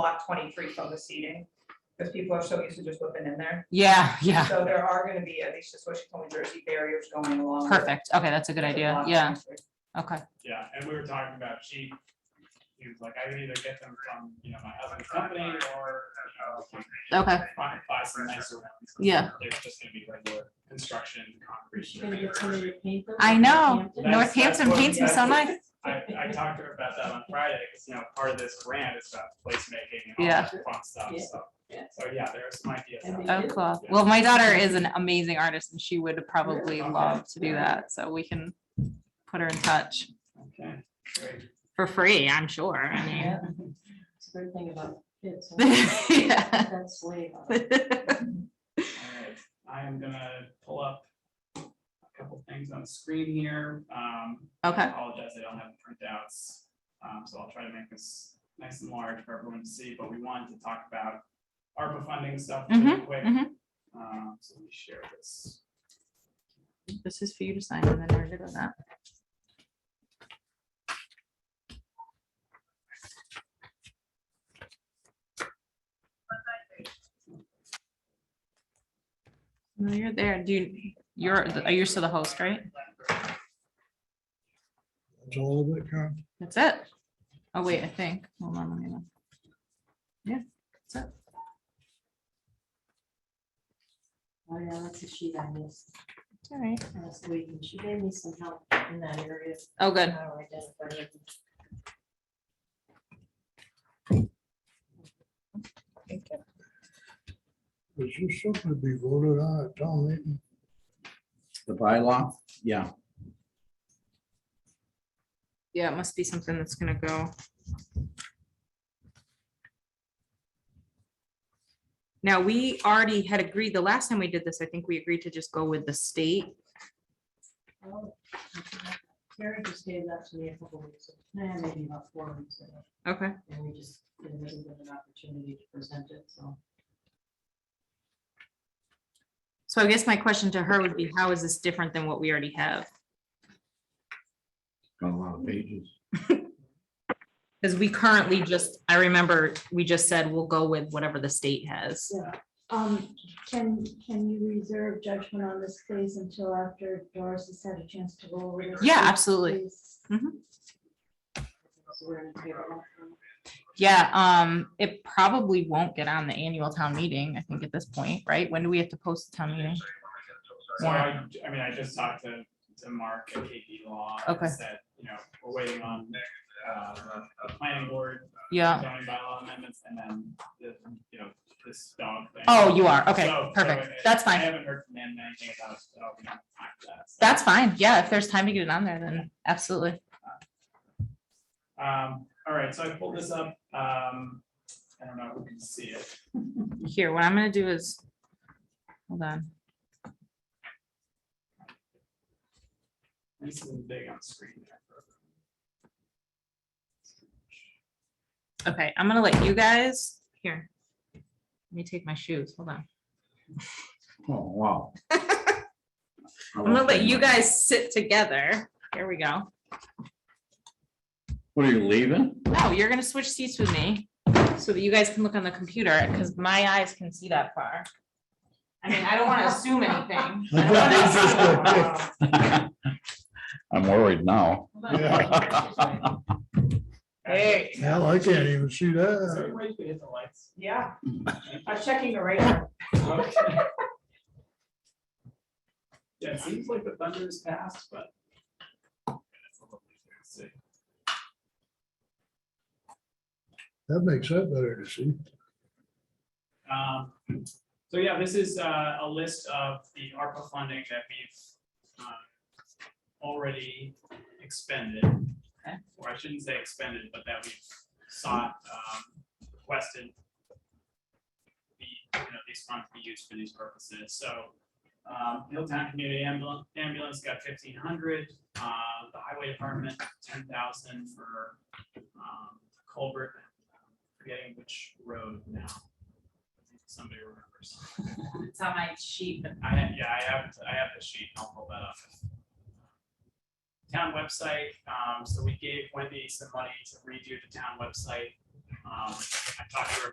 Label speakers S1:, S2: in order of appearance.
S1: block twenty-three from the seating, because people are so used to just whipping in there.
S2: Yeah, yeah,
S1: So there are gonna be, at least just what she told me, Jersey barriers going along. with
S2: perfect. Okay, that's a good
S1: the
S2: idea.
S1: block
S2: Yeah,
S1: 23.
S2: okay.
S3: Yeah, and we were talking about she, he was like, I would either get them from, you know, my husband's company or, you know.
S2: Okay.
S3: Buy, buy some nicer ones.
S2: Yeah.
S3: There's just gonna be regular construction, concrete.
S4: Gonna get somebody to paint them?
S2: I know.
S4: Yeah.
S3: That's- that's
S2: Northampton
S3: what-
S2: paints them so
S3: that's-
S2: nice.
S3: I, I talked to her about that on Friday, because, you know, part of this grant is about placemaking and all
S2: Yeah.
S3: that fun stuff,
S4: Yeah.
S3: so.
S4: Yeah.
S3: So, yeah, there are some ideas.
S4: And
S3: out
S4: they
S3: there.
S2: Oh, cool. Well, my daughter is an amazing artist and she would probably love to do that. So we can put her in touch
S3: Okay, great.
S2: for free, I'm sure. I mean.
S4: Yeah. It's a great thing about kids.
S2: Yeah.
S4: That's way. up.
S3: All right. I am gonna pull up a couple things on the screen here. Um, I
S2: Okay,
S3: Apologize, I don't have printouts, um, so I'll try to make this nice and large for everyone to see, but we wanted to talk about ARPA funding stuff really quick.
S2: mhm.
S3: Um, so let me share this.
S2: this is for you to sign and then we're good on that. No, you're there. Do you, you're, are you still the host, right?
S5: That's all of it, Karen?
S2: That's it. Oh, wait, I think. Hold on, let me look. Yeah, that's it.
S4: Oh, yeah, that's a sheet I missed
S2: All right.
S4: last week, and she gave me some help in that area.
S2: Oh, good.
S4: how to identify it.
S5: Is this something to be voted on at town meeting?
S6: The bylaw, yeah,
S2: Yeah, it must be something that's gonna go. Now, we already had agreed, the last time we did this, I think we agreed to just go with the state.
S4: Oh, okay. Karen just gave that to me a couple weeks, ago, nah, maybe about four weeks ago,
S2: Okay.
S4: and we just didn't really get an opportunity to present it, so.
S2: So I guess my question to her would be, how is this different than what we already have?
S6: got a lot of pages.
S2: Because we currently just, I remember, we just said we'll go with whatever the state has.
S7: Um, can, can you reserve judgment on this please until after Doris has had a chance to go over this?
S2: Yeah,
S7: please,
S2: absolutely. Mm-hmm.
S7: please?
S4: so we're gonna table that one.
S2: Yeah, um, it probably won't get on the annual town meeting, I think at this point, right? When do we have to post the town meeting?
S3: So I, I mean, I just talked to, to Mark at KP Law. and
S2: Okay.
S3: Said, you know, we're waiting on, uh, the planning board,
S2: Yeah.
S3: zoning bylaw amendments, and then the, you know, this dog thing.
S2: Oh, you are. Okay,
S3: So- so
S2: perfect.
S3: it-
S2: That's
S3: I
S2: fine.
S3: haven't heard from them anything about, it, so I'll be on time for that. so.
S2: That's fine. Yeah, if there's time to get it on there, then absolutely.
S3: Um, all right, so I pulled this up, um, I don't know if we can see it.
S2: Here, what I'm gonna do is, hold on.
S3: This is big on screen. there.
S2: Okay, I'm gonna let you guys, here. Let me take my shoes, hold on.
S6: Oh, wow.
S2: I'm gonna let you guys sit together. Here we go.
S6: What are you leaving?
S2: No, Oh, you're gonna switch seats with me so that you guys can look on the computer because my eyes can see that far. I mean, I don't wanna assume anything. I don't wanna assume.
S1: Um,
S6: I'm worried now.
S4: Yeah.
S1: Hey,
S5: Hell, I can't even see
S3: Is there
S5: that.
S3: any way you can hit the lights?
S1: yeah, I was checking the radar.
S3: Okay. Yeah, it seems like the thunder is past, but. Let's see.
S5: That makes that better to see.
S3: Um, So yeah, this is uh, a list of the ARPA funding that we've um, already expended. Or I shouldn't say expended, but that we've sought, um, requested the, you know, these funds be used for these purposes. So um, Hilltown Community Ambul- Ambulance got fifteen hundred, uh, the Highway Department, ten thousand for um, culvert, forgetting which road now somebody remembers.
S2: It's on my sheet. but-
S3: I have, yeah, I have, I have the sheet, I'll pull that up. Town website, um, so we gave Wendy some money to redo the town website. um, Um, I talked to her